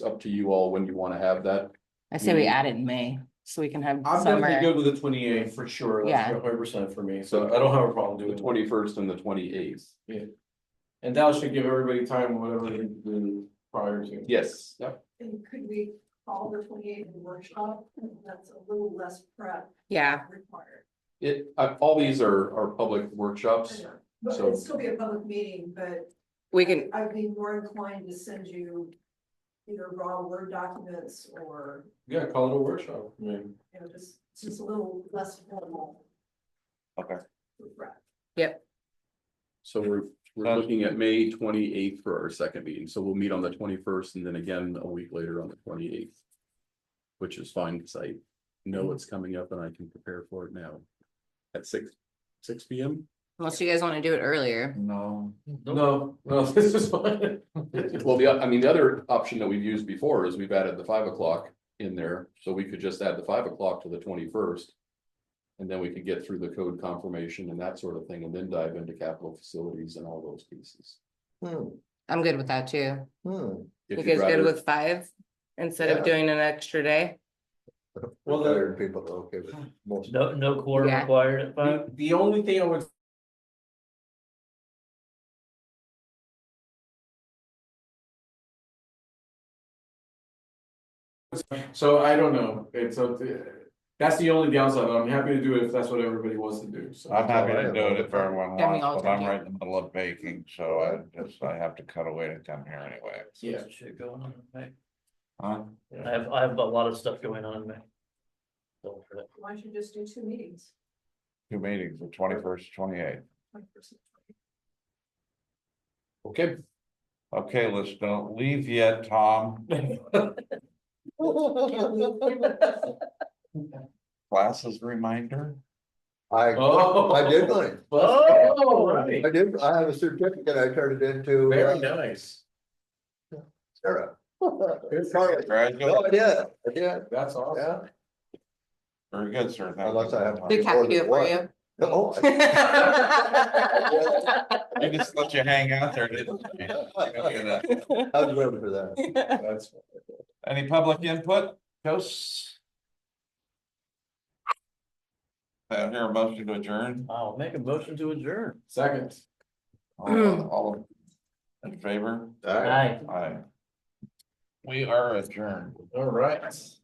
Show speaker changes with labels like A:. A: It's up to you all when you want to have that.
B: I say we
A: Mm.
B: add it in May, so we can have
C: I'm definitely
B: summer,
C: good with the twenty eighth for sure, that's
B: Yeah.
C: one hundred percent for me, so I don't have a problem
A: The
C: doing it.
A: twenty-first and the twenty-eighth.
C: And that should give everybody time, whatever they do prior to.
A: Yes.
D: And could we call the twenty-eighth a workshop? That's a little less prep
B: yeah,
D: required.
A: It, I- all these are, are public workshops.
D: But
A: So-
D: it'd still be a public meeting, but
B: we can,
D: I'd be more inclined to send you either raw Word documents or,
C: Yeah, call it a workshop, I mean,
D: you know, just, just a little less formal.
A: Okay.
D: Prep.
A: So we're, we're looking at May twenty-eighth for our second meeting. So we'll meet on the twenty-first and then again a week later on the twenty-eighth. Which is fine because I know it's coming up and I can prepare for it now. At six, six P M?
B: unless you guys wanna do it earlier.
E: No,
C: no, no, this is fine.
A: Well, the, I mean, the other option that we've used before is we've added the five o'clock in there, so we could just add the five o'clock to the twenty-first. And then we could get through the code confirmation and that sort of thing, and then dive into capital facilities and all those pieces.
E: hmm,
B: I'm good with that too.
E: hmm.
A: If
B: You
A: you'd
B: guys good
A: rather-
B: with five? Instead
A: Yeah.
B: of doing an extra day?
C: Well, the-
E: Other people are okay with most.
F: No, no core
B: Yeah.
F: required at five?
C: The, the only thing I would. So I don't know, it's up to, that's the only downside, but I'm happy to do it if that's what everybody wants to do, so.
G: I'm happy to
E: Alright.
G: do it if everyone
B: Yeah, we all
G: wants, but I'm
B: can do
G: right in the middle of baking, so I just, I have to cut away to come here anyway.
C: Yeah.
F: Shit going on, right?
G: Huh?
F: I have, I have a lot of stuff going on, man. So, for that.
D: Why don't you just do two meetings?
G: Two meetings, the twenty-first, twenty-eighth.
D: 20%.
A: Okay,
G: Okay, let's don't leave yet, Tom. Classes reminder?
E: I,
C: Oh.
E: I did mine,
C: Oh, right.
E: I did, I have a certificate I turned it into.
C: Very
E: uh,
C: nice,
E: Sarah. No,
C: Sorry.
G: Congratulations,
E: I did, I did,
C: that's awesome.
E: yeah,
G: very good, sir. Thank
E: unless I
G: you.
E: have. Oh,
B: Did Kathy do it for you?
E: No. I-
G: I just let you hang out there, didn't I?
E: I was waiting for that.
C: That's,
G: Any public input, Jose? I hear a motion to adjourn.
F: I'll make a motion to adjourn.
C: second. Mm.
G: All- All in favor?
E: All right.
F: Aye.
G: Aye. We are adjourned.
C: All right.